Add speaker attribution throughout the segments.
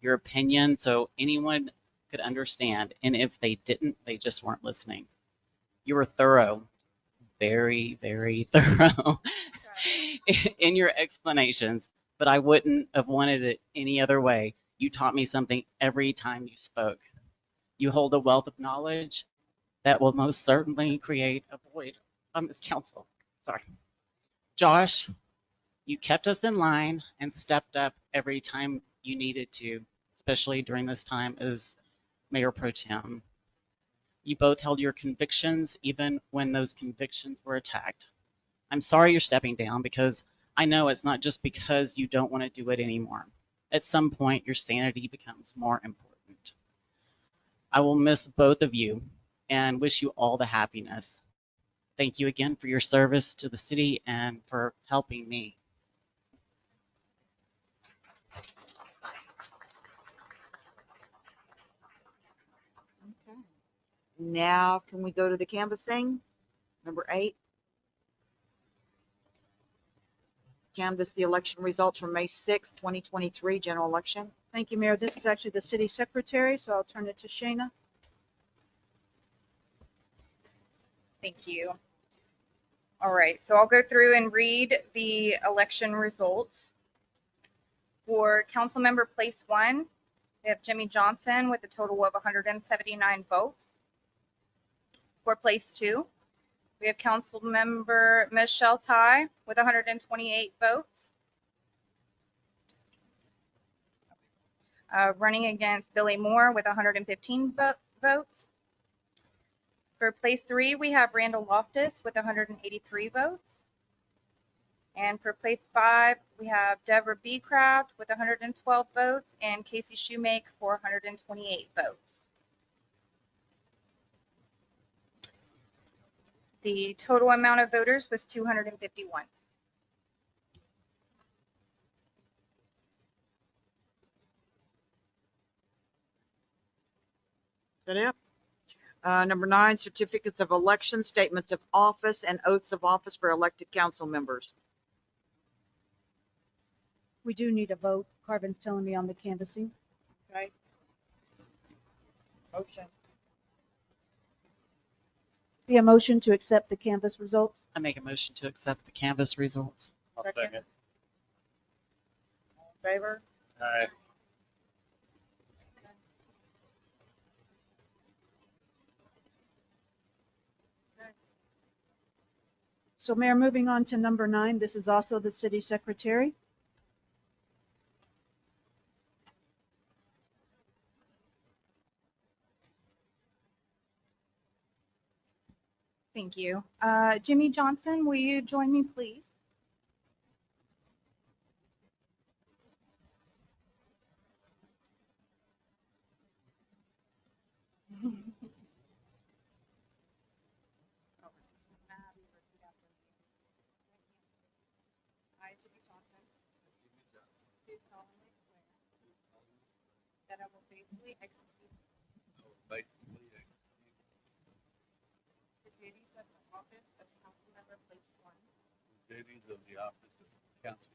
Speaker 1: your opinion so anyone could understand. And if they didn't, they just weren't listening. You were thorough, very, very thorough in your explanations, but I wouldn't have wanted it any other way. You taught me something every time you spoke. You hold a wealth of knowledge that will most certainly create a void on this council. Sorry. Josh, you kept us in line and stepped up every time you needed to, especially during this time as Mayor Pro Tem. You both held your convictions even when those convictions were attacked. I'm sorry you're stepping down because I know it's not just because you don't want to do it anymore. At some point, your sanity becomes more important. I will miss both of you and wish you all the happiness. Thank you again for your service to the city and for helping me.
Speaker 2: Okay. Now, can we go to the canvassing? Number eight. Canvass the election results from May 6, 2023, general election.
Speaker 3: Thank you, Mayor. This is actually the city secretary, so I'll turn it to Shayna.
Speaker 4: Thank you. All right, so I'll go through and read the election results. For council member place one, we have Jimmy Johnson with a total of 179 votes. For place two, we have council member Michelle Ty with 128 votes. Uh, Running against Billy Moore with 115 vo- votes. For place three, we have Randall Loftus with 183 votes. And for place five, we have Deborah B. Craft with 112 votes and Casey Shoemake for 128 votes. The total amount of voters was 251.
Speaker 2: Is that it? Uh, Number nine, certificates of election, statements of office, and oaths of office for elected council members.
Speaker 3: We do need a vote. Carvin's telling me on the canvassing.
Speaker 2: Okay. Motion.
Speaker 3: Be a motion to accept the canvass results.
Speaker 1: I make a motion to accept the canvas results.
Speaker 5: I'll
Speaker 2: Second.
Speaker 5: second.
Speaker 2: All in Favor?
Speaker 5: Aye.
Speaker 3: So Mayor, moving on to number nine, this is also the city secretary.
Speaker 4: Thank you. Uh, Jimmy Johnson, will you join me, please? I, Jimmy Johnson. Do solemnly swear. That I will faithfully execute the duties of the office of council member place one.
Speaker 6: the duties of the office of council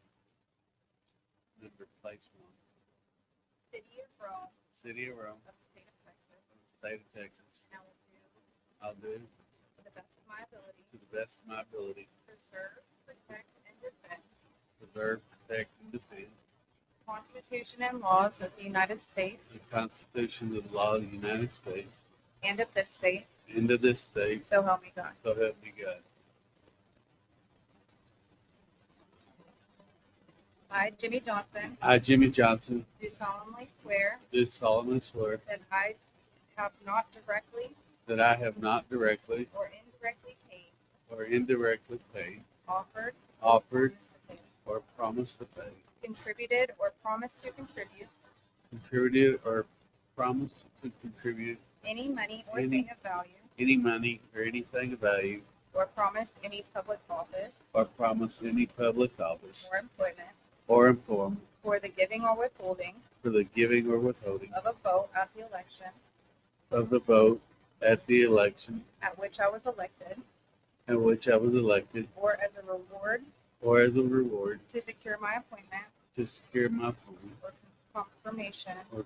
Speaker 6: member place one,
Speaker 4: City of Rome
Speaker 6: city of Rome,
Speaker 4: of the state of Texas,
Speaker 6: of the state of Texas.
Speaker 4: and I will do to
Speaker 6: I'll do to
Speaker 4: the best of my ability
Speaker 6: the best of my ability,
Speaker 4: preserve, protect, and defend
Speaker 6: preserve, protect, and defend
Speaker 4: the Constitution and laws of the United States
Speaker 6: the Constitution and law of the United States
Speaker 4: and of this state,
Speaker 6: and of this state,
Speaker 4: so help me God.
Speaker 6: so help me God.
Speaker 4: I, Jimmy Johnson,
Speaker 6: I, Jimmy Johnson,
Speaker 4: do solemnly swear
Speaker 6: do solemnly swear
Speaker 4: that I have not directly
Speaker 6: that I have not directly
Speaker 4: or indirectly paid,
Speaker 6: or indirectly paid,
Speaker 4: offered,
Speaker 6: offered,
Speaker 4: promised to pay,
Speaker 6: or promised to pay,
Speaker 4: contributed, or promised to contribute
Speaker 6: contributed, or promised to contribute
Speaker 4: any money or
Speaker 6: Any-
Speaker 4: thing of value,
Speaker 6: any money or anything of value
Speaker 4: or promised any public office
Speaker 6: or promise any public office
Speaker 4: or employment
Speaker 6: or inform
Speaker 4: for the giving or withholding
Speaker 6: for the giving or withholding
Speaker 4: of a vote at the election
Speaker 6: of the vote at the election
Speaker 4: at which I was elected,
Speaker 6: at which I was elected
Speaker 4: or as a reward
Speaker 6: or as a reward
Speaker 4: to secure my appointment
Speaker 6: to secure my appointment
Speaker 4: or confirmation.